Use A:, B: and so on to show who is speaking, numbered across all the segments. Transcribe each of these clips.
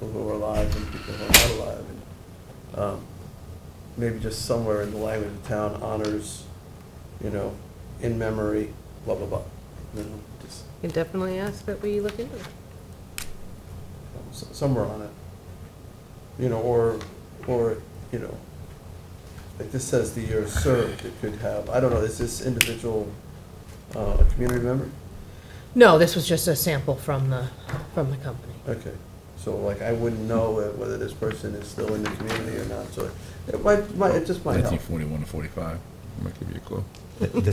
A: people who are alive and people who are not alive. and um, Maybe just somewhere in the language of town honors, you know, in memory, blah, blah, blah. You know, just
B: Can definitely ask that we look into it.
A: s- somewhere on it. You know, or, or, you know, like this says the year served, it could have, I don't know, is this individual uh, a community member?
B: No, this was just a sample from the, from the company.
A: Okay, so like I wouldn't know whether this person is still in the community or not, so it might, might, it just might help.
C: 1941 to 45, might give you a clue.
D: The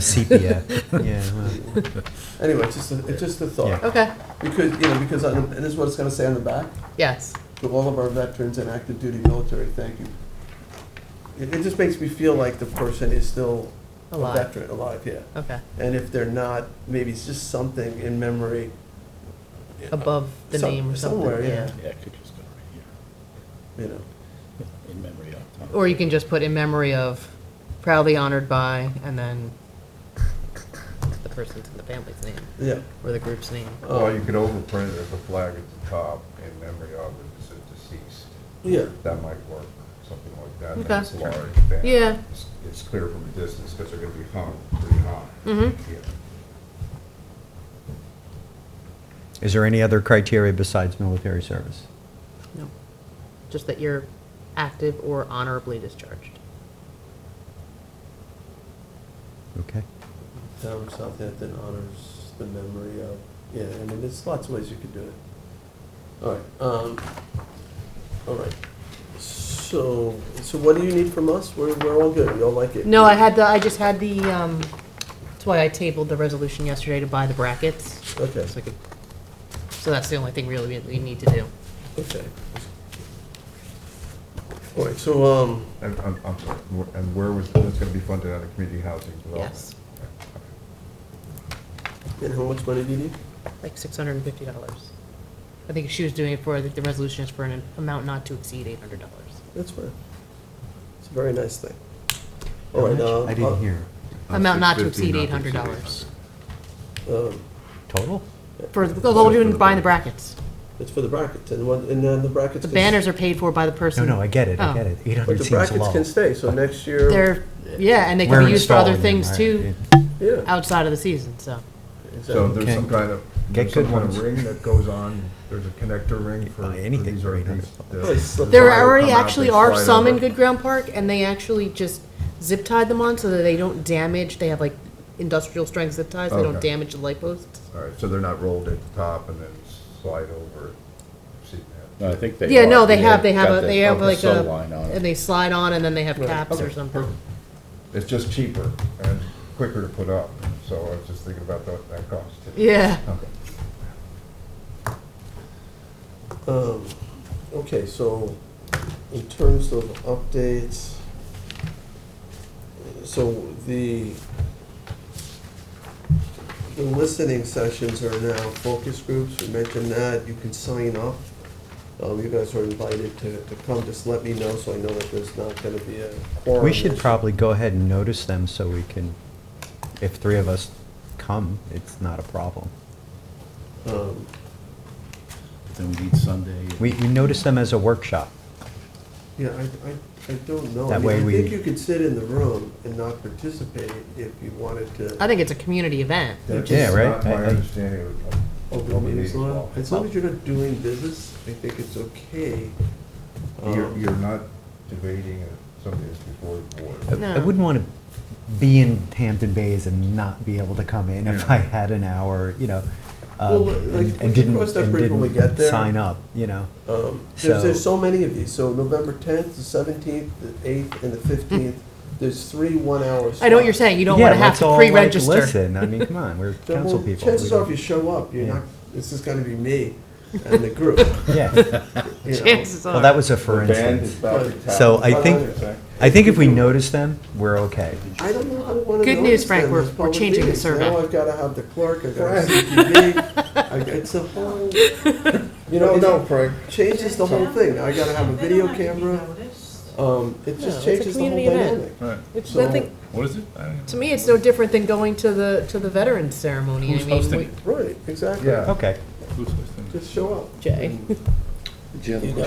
D: sepia, yeah. well,
A: Anyway, it's just, a- it's just a thought.
D: Yeah.
B: Okay,
A: Because, you know, because, on the- and this is what it's gonna say on the back,
B: yes.
A: to all of our veterans and active duty military, thank you. It, it just makes me feel like the person is still a
B: Alive.
A: veteran, alive, yeah.
B: Okay,
A: And if they're not, maybe it's just something in memory.
B: above the
A: Some-
B: name or something.
A: somewhere, yeah.
C: Yeah, it could just go right
A: You know,
C: here, in memory of.
B: Or you can just put in memory of proudly honored by, and then the person's and the family's name,
A: yeah.
B: or the group's name.
E: Well, you could overprint it as a flag at the top in memory of it as a deceased.
A: Yeah,
E: That might work, something like that.
B: Okay.
E: And It's large. banner.
B: Yeah.
E: It's- It's clear from a distance because they're going to be hung pretty high.
B: Mm-hmm.
E: Yeah.
D: Is there any other criteria besides military service?
B: No, just that you're active or honorably discharged.
D: Okay.
A: town of Southampton honors the memory of, yeah, I mean, there's lots of ways you could do it. All right, um, all right. So, so what do you need from us? We're, we're all good, we all like it.
B: No, I had the, I just had the, um, that's why I tabled the resolution yesterday to buy the brackets,
A: Okay,
B: so I could, so that's the only thing really we we need to do.
A: okay. All right, so, um,
E: And, I'm, I'm sorry, wh- and where was, that's going to be funded out of community housing development?
B: Yes,
A: and how much money do you need?
B: like six hundred and fifty dollars. I think she was doing it for, I think the resolution is for an amount not to exceed eight hundred dollars.
A: That's fine. It's a very nice thing. All right,
D: How
A: uh.
D: much? I didn't hear.
B: Amount not to
E: 650,
B: exceed eight
E: Uh, not to
B: hundred
E: exceed
B: dollars.
A: Um,
D: Total?
B: For, the- although we're doing, buying the brackets.
A: it's for the brackets, and one, and then the brackets.
B: The
A: can-
B: banners are paid for by the
D: No,
B: person.
D: no, I get it, I
B: Oh.
D: get it. Eight
A: But
D: hundred
A: the
D: seems
A: brackets
D: low.
A: can stay, so next year.
B: They're, yeah, and they
D: We're
B: can be used for other
D: installing them,
B: things
D: right.
B: too,
A: Yeah.
B: outside of the season, so.
E: So
A: exactly.
E: there's some
D: Okay.
E: kind of,
D: Get
E: there's some
D: good
E: kind
D: ones.
E: of ring that goes on, there's a connector ring for.
D: buy anything
E: these
D: for
E: are
D: 800
E: these-
A: Oh, it's
E: the-
A: slip-
B: There
E: the wire will
B: already
E: come out,
B: actually
E: they
B: are
E: slide
B: some in
E: over.
B: Good Ground Park, and they actually just zip tied them on so that they don't damage, they have like industrial strength zip ties, they don't
E: Okay.
B: damage the light posts.
E: All right, so they're not rolled at the top and then slide over. See that?
C: No, I think they.
B: Yeah,
C: are.
B: no, they have,
C: They've
B: they have,
C: got
B: a
C: the-
B: they have like
C: sew
B: a,
C: line on
B: and
C: it.
B: they slide on and then they have
A: Right.
B: caps or
E: Okay.
B: something.
E: It's just cheaper and quicker to put up, so I was just thinking about that, that cost. too.
B: Yeah,
E: Okay.
A: Um, okay, so in terms of updates, so the, the listening sessions are now focus groups, we mentioned that, you can sign up. Um, you guys are invited to, to come, just let me know so I know that there's not gonna be a quorum.
D: We should
A: issue.
D: probably go ahead and notice them so we can, if three of us come, it's not a problem.
A: Um,
C: Then we need Sunday.
D: We, we notice them as a workshop.
A: Yeah, I, I, I don't know. I
D: That
A: mean,
D: way we-
A: I think you could sit in the room and not participate if you wanted to.
B: I think it's a community event.
E: That's
D: Yeah, right.
E: not
D: I-
E: My
D: I-
E: understanding of- of.
A: Open meetings law, as long as you're not doing business, I think it's okay.
E: You're,
D: Uh-huh.
A: Um,
E: you're not debating uh, something that's before the
D: I-
E: board.
D: I
B: No.
D: wouldn't want to be in Hampton Bays and not be able to come in if
E: Yeah.
D: I had an hour, you know,
A: Well,
D: um,
A: like, we
D: and
A: can
D: and didn't,
A: cross that
D: and
A: bridge when we get
D: didn't
A: there.
D: sign up, you know?
A: um, There's, there's
D: So-
A: so many of these, so November tenth, the seventeenth, the eighth, and the fifteenth, there's three one-hour slots.
B: I know what you're saying, you don't
D: Yeah,
B: wanna have
D: let's all,
B: to
D: like,
B: pre-register.
D: Listen, I mean, come on, we're
A: So, well,
D: council people. We
A: Chances are, if
D: don't-
A: you show up, you're
D: Yeah.
A: not, this is gonna be me and the group,
D: Yeah,
A: you know.
B: Chances
D: well, that
B: are.
D: was a for
E: The band
D: instance.
E: is back in town.
D: So I
A: But
D: think, I think if we notice them, we're okay.
A: I don't know how to want to
B: Good news, Frank, we're- we're changing the survey.
A: Now I've got to have the clerk, I've got to have CTV, I- it's a whole, you know,
E: No, no,
A: it
E: Frank.
A: changes the whole thing. I got to have a video camera, um, it
B: No, it's
A: just
B: a
A: changes the whole
B: community event.
A: dynamic.
C: Right.
B: It's
A: So-
B: nothing,
C: What is it? I don't know.
B: to me, it's no different than going to the, to the veterans ceremony. I
C: Who's
B: mean,
C: hosting
B: we-
C: it?
A: Right, exactly.
E: Yeah.
D: Okay.
C: Who's hosting it?
A: Just show up.
B: Jay.
A: And Do you have a
F: You
A: question?